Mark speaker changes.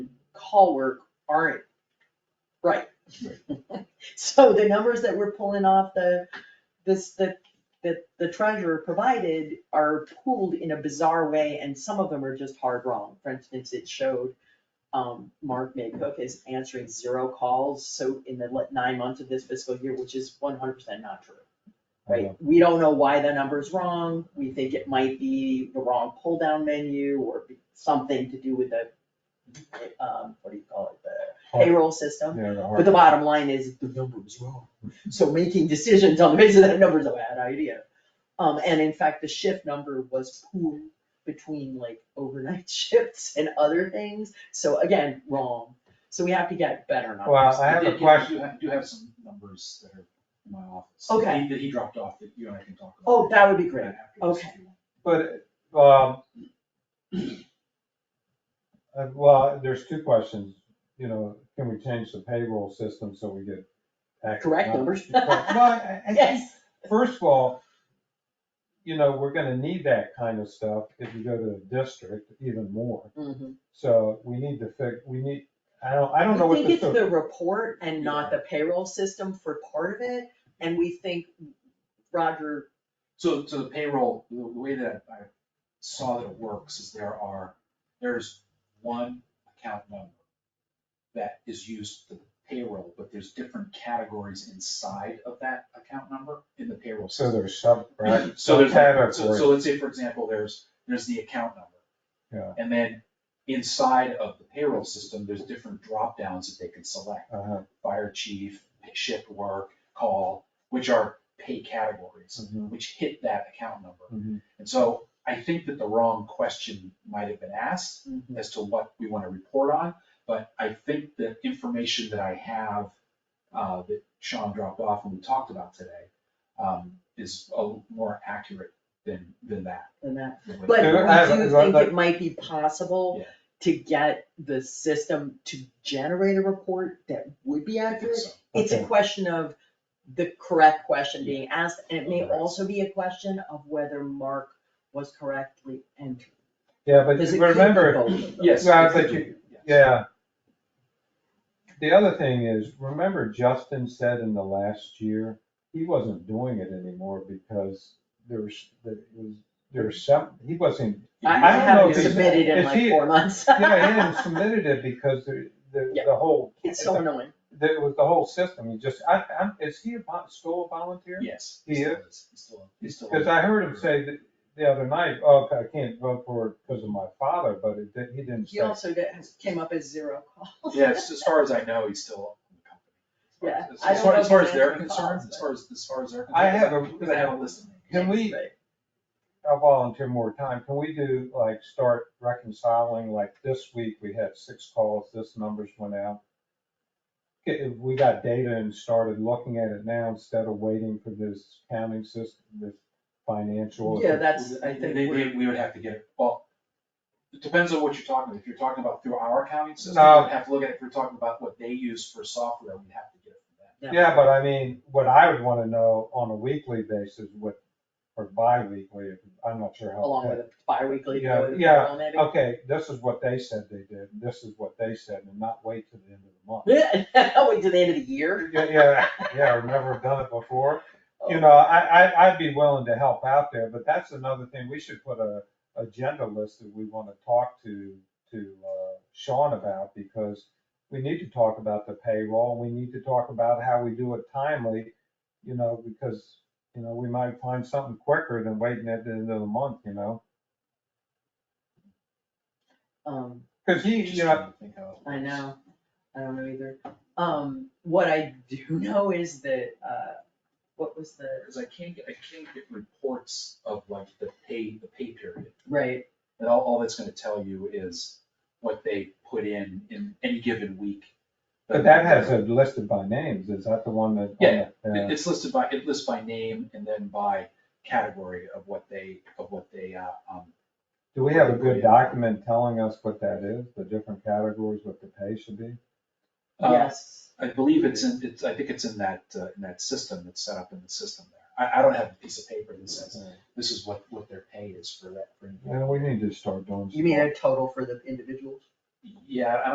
Speaker 1: hall work aren't right.
Speaker 2: So the numbers that we're pulling off the, this, the, that the treasurer provided are pooled in a bizarre way, and some of them are just hard wrong. For instance, it showed, um, Mark Maycook is answering zero calls, so in the le- nine months of this fiscal year, which is one hundred percent not true. Right, we don't know why the number's wrong, we think it might be the wrong pull-down menu or be- something to do with the, um, what do you call it, the
Speaker 3: Hard-
Speaker 2: payroll system.
Speaker 3: Yeah, the
Speaker 2: But
Speaker 3: hard-
Speaker 2: the bottom line is, the number was wrong, so making decisions on the basis of that number is a bad idea. Um, and in fact, the shift number was pooled between like overnight shifts and other things, so again, wrong. So we have to get better numbers.
Speaker 3: Well, I have
Speaker 4: did-
Speaker 3: a
Speaker 4: you
Speaker 3: question.
Speaker 4: do have- Do have some numbers that are in my office.
Speaker 2: Okay.
Speaker 4: That he dropped off that you and I can talk about.
Speaker 2: Oh, that would be great,
Speaker 4: after this if
Speaker 2: Okay.
Speaker 4: you want.
Speaker 3: But, um, uh, well, there's two questions, you know, can we change the payroll system so we get accurate
Speaker 2: correct numbers?
Speaker 3: Well, I, I think,
Speaker 2: Yes,
Speaker 3: first of all, you know, we're gonna need that kind of stuff if you go to the district even more.
Speaker 2: Mhm.
Speaker 3: So we need to fig, we need, I don't, I Mm-hmm. don't know
Speaker 2: We
Speaker 3: what
Speaker 2: think it's
Speaker 3: the,
Speaker 2: the report and not the payroll system for part of it, and we think Roger,
Speaker 4: So, so the payroll, the the way that I saw that it works is there are, there's one account number that is used for the payroll, but there's different categories inside of that account number in the payroll
Speaker 3: so
Speaker 4: system.
Speaker 3: there's sub, right?
Speaker 4: So there's, like- so,
Speaker 3: subcategories.
Speaker 4: so let's say, for example, there's, there's the account number.
Speaker 3: Yeah.
Speaker 4: And then inside of the payroll system, there's different drop downs that they can select,
Speaker 3: Uh-huh.
Speaker 4: fire chief, shift work, call, which are pay categories,
Speaker 3: Mhm.
Speaker 4: which hit that account
Speaker 3: Mhm.
Speaker 4: number. And so I think that the wrong question might have been asked
Speaker 2: Mhm.
Speaker 4: as to what we want to report on, but I think the information that I have uh, that Sean dropped off and we talked about today, um, is a more accurate than, than that.
Speaker 2: and that.
Speaker 4: than what-
Speaker 2: But
Speaker 3: Yeah, I have-
Speaker 2: we do
Speaker 3: I-
Speaker 2: think
Speaker 3: I-
Speaker 2: it might be possible
Speaker 4: Yeah.
Speaker 2: to get the system to generate a report that would be
Speaker 4: I think
Speaker 2: accurate.
Speaker 4: so.
Speaker 2: It's a
Speaker 3: Okay.
Speaker 2: question of the correct question being asked, and it may
Speaker 3: Correct.
Speaker 2: also be a question of whether Mark was correctly entered.
Speaker 3: Yeah, but
Speaker 2: Because it could be
Speaker 3: remember,
Speaker 2: both of those.
Speaker 4: Yes.
Speaker 3: Well, but you-
Speaker 4: Yes.
Speaker 3: Yeah. The other thing is, remember Justin said in the last year, he wasn't doing it anymore because there's, there was, there's some, he wasn't,
Speaker 2: I
Speaker 3: I
Speaker 2: I
Speaker 3: don't know
Speaker 2: haven't
Speaker 3: if he's-
Speaker 2: submitted in
Speaker 3: if
Speaker 2: like
Speaker 3: he-
Speaker 2: four months.
Speaker 3: yeah, he hadn't submitted it because the, the,
Speaker 2: Yeah.
Speaker 3: the whole,
Speaker 2: It's so annoying.
Speaker 3: there was the whole system, he just, I, I'm, is he a vo- still a volunteer?
Speaker 4: Yes.
Speaker 3: He
Speaker 4: still is. He's still, he's still.
Speaker 3: Cause I heard him say that the other night, oh, I can't vote for it because of my father, but it, didn't- he didn't
Speaker 2: He
Speaker 3: say.
Speaker 2: also did- came up as zero calls.
Speaker 4: Yes, as far as I know, he's still in the company.
Speaker 2: Yeah,
Speaker 4: As far as-
Speaker 2: I
Speaker 4: As
Speaker 2: don't
Speaker 4: far,
Speaker 2: know
Speaker 4: as far
Speaker 2: if
Speaker 4: as
Speaker 2: he's
Speaker 4: they're
Speaker 2: answering
Speaker 4: concerned,
Speaker 2: calls,
Speaker 4: as far as, as far as they're.
Speaker 3: I have a-
Speaker 4: Because I have a list.
Speaker 3: Can we,
Speaker 2: Right.
Speaker 3: I'll volunteer more time. Can we do, like, start reconciling, like, this week we had six calls, this numbers went out? Okay, if we got data and started looking at it now instead of waiting for this accounting system, this financial.
Speaker 2: Yeah, that's, I
Speaker 4: They-
Speaker 2: think,
Speaker 4: they-
Speaker 2: we're-
Speaker 4: we would have to get, it. well, it depends on what you're talking about. If you're talking about through our accounting system,
Speaker 3: No.
Speaker 4: we'd have to look at it. If you're talking about what they use for software, we'd have to get it from them.
Speaker 3: Yeah, but I mean, what I would wanna know on a weekly basis, what, or bi-weekly, I'm not sure how.
Speaker 2: along with a bi-weekly.
Speaker 3: Yeah,
Speaker 2: bill,
Speaker 3: yeah,
Speaker 2: maybe.
Speaker 3: Okay, this is what they said they did, this is what they said, and not wait till the end of the month.
Speaker 2: Yeah, wait till the end of the year.
Speaker 3: Yeah, yeah, yeah, I've never done it before. You know, I, I, I'd be willing to help out there, but that's another thing, we should put a agenda list that we wanna talk to, to uh, Sean about, because we need to talk about the payroll, we need to talk about how we do it timely, you know, because, you know, we might find something quicker than waiting at the end of the month, you know?
Speaker 2: Um,
Speaker 3: Cause he,
Speaker 4: Just
Speaker 3: you know,
Speaker 4: trying to think how it
Speaker 2: I
Speaker 4: works.
Speaker 2: know, I don't know either. Um, what I do know is that, uh, what was the,
Speaker 4: Because I can't, get- I can't get reports of like the pay, the pay period.
Speaker 2: right,
Speaker 4: And all, all that's gonna tell you is what they put in, in any given week.
Speaker 3: but that has it listed by names, is that the one that? uh,
Speaker 4: Yeah,
Speaker 3: Yeah.
Speaker 4: It- It's listed by, it lists by name and then by category of what they, of what they, uh, um,
Speaker 3: Do we have a good document telling us what that is, the different categories, what the pay should be?
Speaker 4: uh,
Speaker 2: yes.
Speaker 4: I believe it's in, it's, I think it's in that, uh, in that system that's set up in the system there. I, I don't have a piece of paper that says this is what, what their pay is for that. for any-
Speaker 3: Yeah, we need to start doing.
Speaker 2: You mean a total for the individuals?
Speaker 4: Yeah, I